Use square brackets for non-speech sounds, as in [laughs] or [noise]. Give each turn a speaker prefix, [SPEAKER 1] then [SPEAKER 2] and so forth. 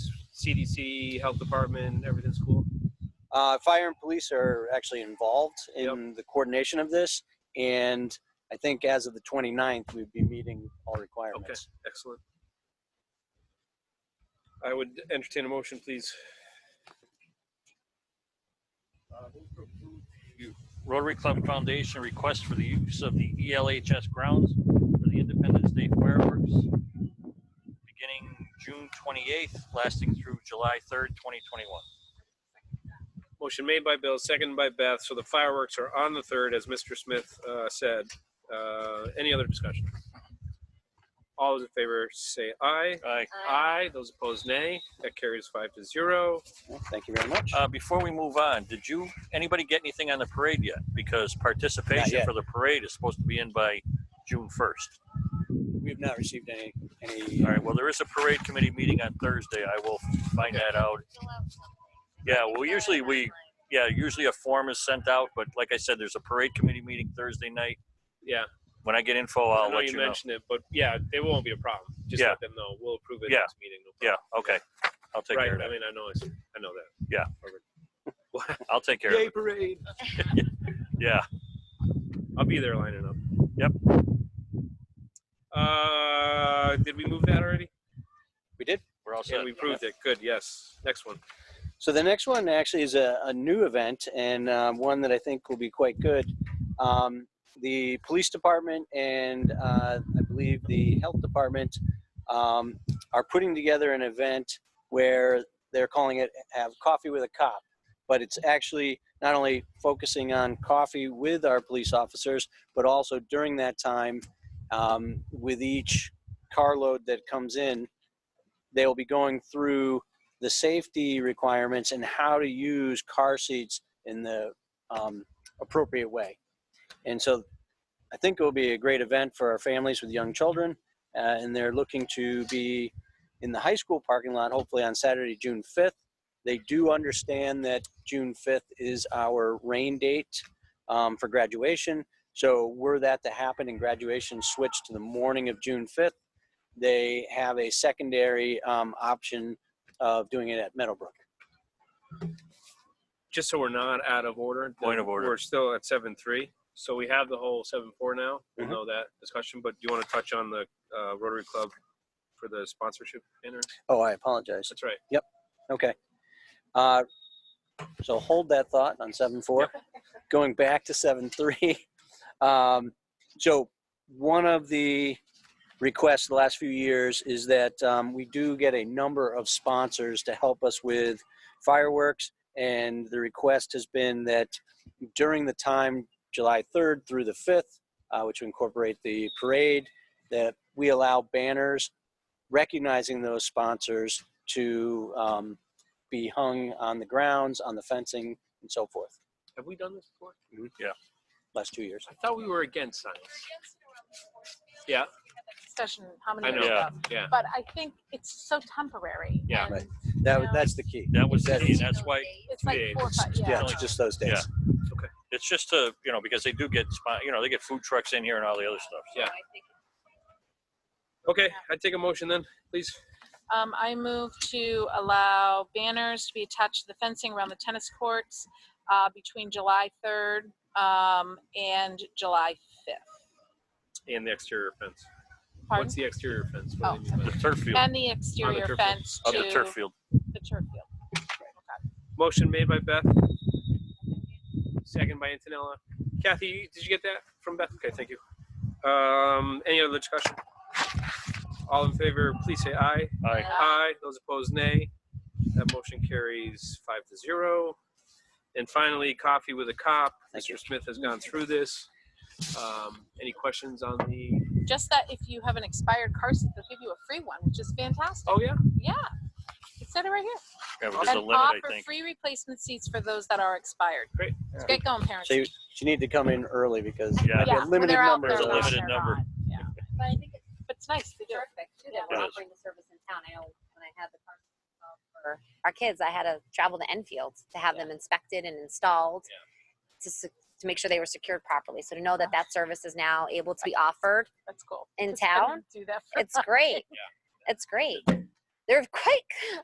[SPEAKER 1] CDC, health department, everything's cool.
[SPEAKER 2] Uh, fire and police are actually involved in the coordination of this, and I think as of the 29th, we'd be meeting all requirements.
[SPEAKER 1] Excellent. I would entertain a motion, please.
[SPEAKER 3] Rotary Club Foundation request for the use of the E ELHS grounds for the Independence Day fireworks beginning June 28th, lasting through July 3rd, 2021.
[SPEAKER 1] Motion made by Bill, seconded by Beth. So the fireworks are on the third, as Mr. Smith uh, said. Uh, Any other discussion? All those in favor say aye.
[SPEAKER 3] Aye.
[SPEAKER 1] Aye. Those opposed, nay. That carries five to zero.
[SPEAKER 2] Well, Thank you very much.
[SPEAKER 3] Uh, Before we move on, did you, anybody get anything on the parade yet? Because
[SPEAKER 2] Not
[SPEAKER 3] participation
[SPEAKER 2] yet.
[SPEAKER 3] for the parade is supposed to be in by June 1st.
[SPEAKER 2] We've not received any, any, uh,
[SPEAKER 3] All right, well, there is a parade committee meeting on Thursday. I will find that out. Yeah, well, usually we, yeah, usually a form is sent out, but like I said, there's a parade committee meeting Thursday night.
[SPEAKER 1] Yeah.
[SPEAKER 3] When I get info,
[SPEAKER 1] I
[SPEAKER 3] I'll
[SPEAKER 1] know
[SPEAKER 3] let you
[SPEAKER 1] you
[SPEAKER 3] know.
[SPEAKER 1] mentioned it, but yeah, it won't be a problem. Just
[SPEAKER 3] Yeah.
[SPEAKER 1] let them know. We'll approve it
[SPEAKER 3] Yeah.
[SPEAKER 1] next meeting. no
[SPEAKER 3] Yeah,
[SPEAKER 1] problem.
[SPEAKER 3] okay. I'll take care of
[SPEAKER 1] Right. I
[SPEAKER 3] that.
[SPEAKER 1] mean, I know, it's- I know that.
[SPEAKER 3] Yeah.
[SPEAKER 1] Perfect.
[SPEAKER 3] I'll take care of
[SPEAKER 1] Yay
[SPEAKER 3] it.
[SPEAKER 1] parade.
[SPEAKER 3] Yeah.
[SPEAKER 1] I'll be there lining up.
[SPEAKER 3] Yep.
[SPEAKER 1] Uh, did we move that already?
[SPEAKER 2] we did.
[SPEAKER 3] We're all
[SPEAKER 1] Yeah,
[SPEAKER 3] set.
[SPEAKER 1] we proved it. Good, yes. Next one.
[SPEAKER 2] So the next one actually is a, a new event and um, one that I think will be quite good. Um, the police department and uh, I believe the health department um, are putting together an event where they're calling it Have Coffee with a Cop. But it's actually not only focusing on coffee with our police officers, but also during that time um, with each carload that comes in, they will be going through the safety requirements and how to use car seats in the um, appropriate way. And so I think it will be a great event for our families with young children. Uh, and they're looking to be in the high school parking lot, hopefully on Saturday, June 5th. They do understand that June 5th is our rain date um, for graduation. So, were that to happen and graduation switched to the morning of June 5th, they have a secondary um, option of doing it at Meadowbrook.
[SPEAKER 1] Just so we're not out of order.
[SPEAKER 3] Point of order.
[SPEAKER 1] We're still at seven three, so we have the whole seven four now. We'll
[SPEAKER 2] Mhm.
[SPEAKER 1] know that discussion, but do you want to touch on the uh, Rotary Club for the sponsorship banners?
[SPEAKER 2] Oh, I apologize.
[SPEAKER 1] That's right.
[SPEAKER 2] Okay. Uh, So hold that thought on seven four. Going back to seven three. [laughs] Um, so one of the requests the last few years is that um, we do get a number of sponsors to help us with fireworks. And the request has been that during the time July third through the fifth, uh, which incorporate the parade, that we allow banners recognizing those sponsors to um, be hung on the grounds, on the fencing, and so forth.
[SPEAKER 1] Have we done this before?
[SPEAKER 2] Last two years.
[SPEAKER 1] I thought we were against signs. Yeah.
[SPEAKER 4] Discussion, how
[SPEAKER 1] I
[SPEAKER 4] many
[SPEAKER 1] know.
[SPEAKER 4] years ago?
[SPEAKER 1] Yeah.
[SPEAKER 4] But I think it's so temporary.
[SPEAKER 1] Yeah.
[SPEAKER 4] and
[SPEAKER 2] Right. That,
[SPEAKER 4] Yeah.
[SPEAKER 2] that's the key.
[SPEAKER 3] That was, the key, and that's why,
[SPEAKER 4] It's like
[SPEAKER 1] Yeah,
[SPEAKER 4] four, or five,
[SPEAKER 2] Yeah,
[SPEAKER 4] yeah.
[SPEAKER 2] it's just those days.
[SPEAKER 3] it's just to, you know, because they do get, spon- you know, they get food trucks in here and all the other stuff.
[SPEAKER 1] Yeah. Okay, I take a motion then, please.
[SPEAKER 4] Um, I move to allow banners to be attached to the fencing around the tennis courts, uh, between July third, um, and July fifth.
[SPEAKER 1] And the exterior fence.
[SPEAKER 4] Pardon?
[SPEAKER 1] What's the exterior fence? What do they mean by
[SPEAKER 3] The
[SPEAKER 1] that?
[SPEAKER 3] turf field,
[SPEAKER 4] And the exterior
[SPEAKER 1] turf field.
[SPEAKER 4] fence to
[SPEAKER 3] of the turf field.
[SPEAKER 4] the turf field.
[SPEAKER 1] Motion made by Beth. Second by Antonella. Kathy, you- did you get that from Beth? Okay, thank you. Um, any other discussion? All in favor, please say aye.
[SPEAKER 3] Aye.
[SPEAKER 4] uh,
[SPEAKER 1] Aye. Those opposed, nay. That motion carries five to zero. And finally, coffee with a cop.
[SPEAKER 2] Thank you.
[SPEAKER 1] Mr. Smith has gone through this. Um, any questions on the,
[SPEAKER 4] Just that if you have an expired car seat, they'll give you a free one, which is fantastic.
[SPEAKER 1] oh, yeah,
[SPEAKER 4] Yeah. It said it right here.
[SPEAKER 3] Yeah, but there's a
[SPEAKER 4] and
[SPEAKER 3] limit, I
[SPEAKER 4] offer
[SPEAKER 3] think.
[SPEAKER 4] free replacement seats for those that are expired.
[SPEAKER 1] Great.
[SPEAKER 4] It's great going, parents.
[SPEAKER 2] So you, you need to come in early because
[SPEAKER 3] Yeah.
[SPEAKER 2] there'll be a
[SPEAKER 4] Yeah, when
[SPEAKER 2] limited
[SPEAKER 4] they're out,
[SPEAKER 2] number.
[SPEAKER 4] they're
[SPEAKER 3] There's a
[SPEAKER 4] out,
[SPEAKER 3] limited
[SPEAKER 4] they're
[SPEAKER 3] number.
[SPEAKER 4] not. Yeah.
[SPEAKER 5] But I think it's
[SPEAKER 4] But it's nice to do.
[SPEAKER 5] terrific too that
[SPEAKER 3] It
[SPEAKER 5] we're
[SPEAKER 3] is.
[SPEAKER 5] offering the service in town. I know when I had the car uh, for our kids, I had to travel to Enfield to have them inspected and installed
[SPEAKER 1] Yeah.
[SPEAKER 5] to se- to make sure they were secured properly. So to know that that service is now
[SPEAKER 3] [laughs]
[SPEAKER 5] able to be offered
[SPEAKER 4] That's cool.
[SPEAKER 5] in
[SPEAKER 4] Just I didn't
[SPEAKER 5] town,
[SPEAKER 4] Do that for
[SPEAKER 5] it's great. It's great. They're quite